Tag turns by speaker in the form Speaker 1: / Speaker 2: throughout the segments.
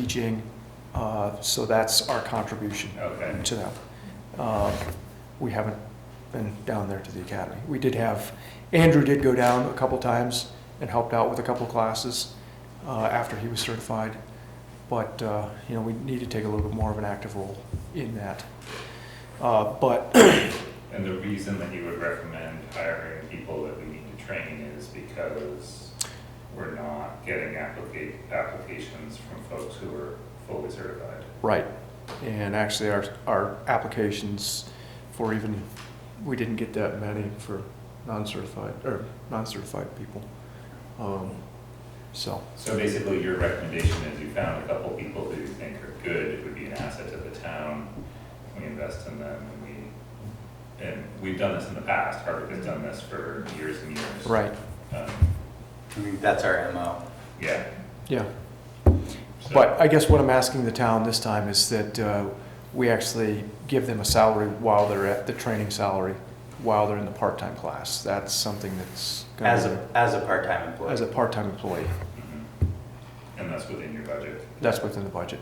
Speaker 1: teaching, uh, so that's our contribution
Speaker 2: Okay.
Speaker 1: to them. Uh, We haven't been down there to the academy. We did have, Andrew did go down a couple times and helped out with a couple classes uh, after he was certified, but, uh, you know, we need to take a little bit more of an active role in that. Uh, But,
Speaker 2: And the reason that you would recommend hiring people that we need to train is because we're not getting applica- applications from folks who are fully certified.
Speaker 1: right, and actually, our, our applications for even, we didn't get that many for non-certified, or non-certified people. Um, So,
Speaker 2: So basically, your recommendation is you found a couple people who you think are good, it would be an asset to the town. We invest in them and we, and we've done this in the past, Hardwick has done this for years and years.
Speaker 1: right,
Speaker 2: Um,
Speaker 3: I mean, that's our MO.
Speaker 2: Yeah.
Speaker 1: yeah.
Speaker 2: so-
Speaker 1: But I guess what I'm asking the town this time is that uh, we actually give them a salary while they're at the training salary, while they're in the part-time class. That's something that's. gonna
Speaker 3: As
Speaker 1: be-
Speaker 3: a, as a part-time employee.
Speaker 1: As a part-time employee.
Speaker 2: Mhm. And that's within your budget.
Speaker 1: That's within the budget.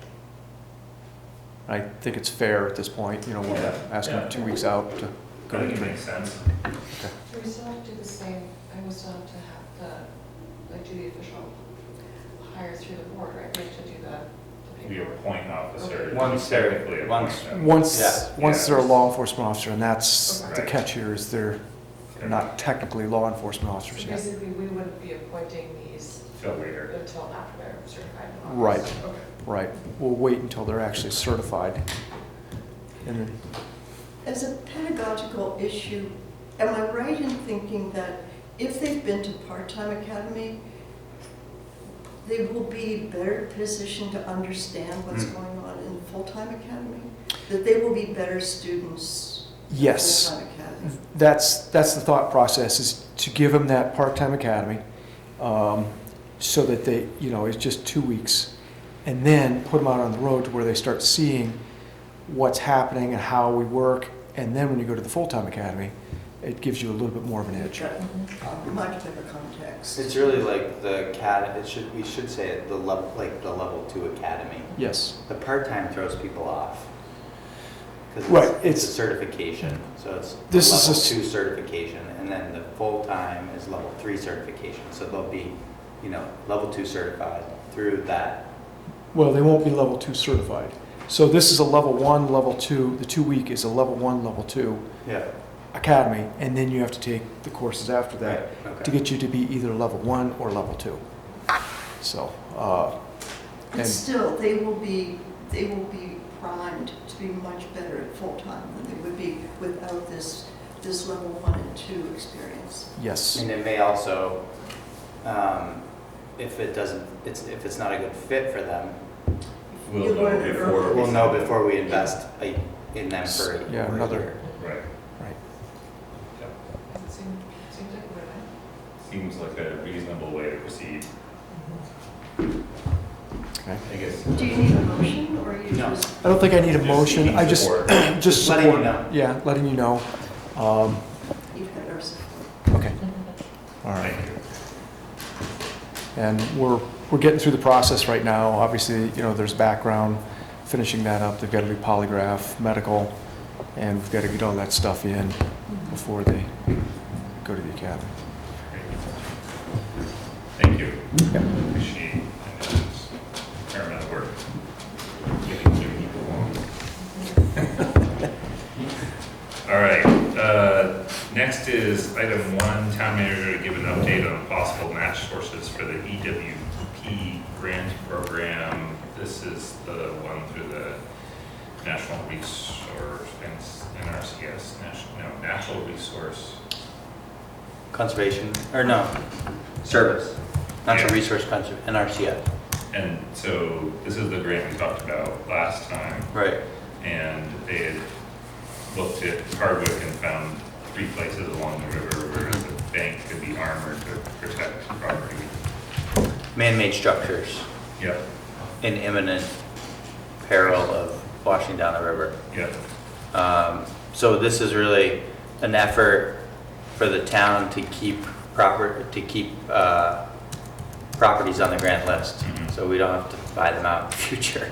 Speaker 1: I think it's fair at this point, you know, we're
Speaker 2: Yeah.
Speaker 1: asking
Speaker 2: Yeah.
Speaker 1: two weeks out to
Speaker 2: I
Speaker 1: go to
Speaker 2: think it
Speaker 1: training.
Speaker 2: makes sense.
Speaker 4: Do we still have to do the same, and we still have to have the, like, do the official hire through the board, right? We have to do the- the
Speaker 2: We
Speaker 4: paperwork.
Speaker 2: appoint an officer.
Speaker 3: Once they're-
Speaker 2: Technically appoint
Speaker 3: once-
Speaker 2: them.
Speaker 1: Once,
Speaker 3: Yeah.
Speaker 1: once they're a law enforcement officer, and that's the
Speaker 2: Right.
Speaker 1: catch here, is they're not technically law enforcement officers
Speaker 4: So
Speaker 1: yet.
Speaker 4: basically, we wouldn't be appointing these
Speaker 2: Till later.
Speaker 4: until after they're certified. in August.
Speaker 1: Right.
Speaker 4: Okay.
Speaker 1: Right, we'll wait until they're actually certified. And then,
Speaker 5: As a pedagogical issue, am I right in thinking that if they've been to part-time academy, they will be better positioned to understand what's
Speaker 3: Hmm.
Speaker 5: going on in full-time academy? That they will be better students? in
Speaker 1: yes, Mm-hmm.
Speaker 5: Full-time academy?
Speaker 1: that's, that's the thought process, is to give them that part-time academy, um, so that they, you know, it's just two weeks. And then put them out on the road to where they start seeing what's happening and how we work. And then when you go to the full-time academy, it gives you a little bit more of an edge.
Speaker 5: Got a Uh, Much better context.
Speaker 3: It's really like the cat, it should, we should say it, the level, like the level two academy.
Speaker 1: Yes,
Speaker 3: The part-time throws people off. 'Cause
Speaker 1: Right,
Speaker 3: It's a
Speaker 1: it's-
Speaker 3: certification, so it's the
Speaker 1: This is a
Speaker 3: level
Speaker 1: s-
Speaker 3: two certification, and then the full-time is level three certification. So they'll be, you know, level two certified through that.
Speaker 1: well, they won't be level two certified. So this is a level one, level two, the two-week is a level one, level two.
Speaker 3: Yeah.
Speaker 1: academy, and then you have to take the courses after that to
Speaker 3: Okay.
Speaker 1: get you to be either level one or level two. So, uh,
Speaker 5: But
Speaker 1: and-
Speaker 5: still, they will be, they will be primed to be much better at full-time than they would be without this, this level one and two experience.
Speaker 1: yes,
Speaker 3: And it may also, um, if it doesn't, it's, if it's not a good fit for them,
Speaker 2: We'll
Speaker 5: You
Speaker 2: know
Speaker 5: learn it
Speaker 2: before.
Speaker 5: early.
Speaker 2: we
Speaker 3: We'll know
Speaker 2: send
Speaker 3: before we invest like, in them for a
Speaker 1: Yeah,
Speaker 3: for a
Speaker 1: another-
Speaker 3: year.
Speaker 2: them. Right.
Speaker 1: right.
Speaker 2: Yep.
Speaker 4: Does it seem, seems like we're right?
Speaker 2: Seems like a reasonable way to proceed.
Speaker 1: Okay.
Speaker 2: I guess.
Speaker 5: Do you need a motion, or you
Speaker 3: No.
Speaker 5: just?
Speaker 1: I don't think I need a
Speaker 2: Just
Speaker 1: motion.
Speaker 2: seeking
Speaker 1: I just,
Speaker 2: support.
Speaker 1: just
Speaker 3: Letting you
Speaker 1: support.
Speaker 3: know.
Speaker 1: Yeah, letting you know. Um,
Speaker 5: You've got our support.
Speaker 1: okay, all right.
Speaker 2: Thank you.
Speaker 1: And we're, we're getting through the process right now. Obviously, you know, there's background, finishing that up. They've got to do polygraph, medical, and we've got to get all that stuff in before they go to the academy.
Speaker 2: Great. Thank you.
Speaker 1: Yep.
Speaker 2: Appreciate, I know it's paramount work. Getting you people along. All right, uh, next is item one, town manager to give an update on possible match sources for the EWP grant program. This is the one through the National Resource, NRCS, National, no, Natural Resource.
Speaker 3: Conservation, or no, service, natural
Speaker 2: Yeah.
Speaker 3: resource conservation, NRCF.
Speaker 2: And so this is the grant we talked about last time,
Speaker 3: Right.
Speaker 2: and they had looked at Hardwick and found three places along the river where the bank could be armored to protect property.
Speaker 3: Man-made structures
Speaker 2: Yep,
Speaker 3: in imminent peril of washing down the river.
Speaker 2: yep,
Speaker 3: Um, So this is really an effort for the town to keep proper, to keep uh, properties on the grant list.
Speaker 2: Mhm.
Speaker 3: So we don't have to buy them out in the future.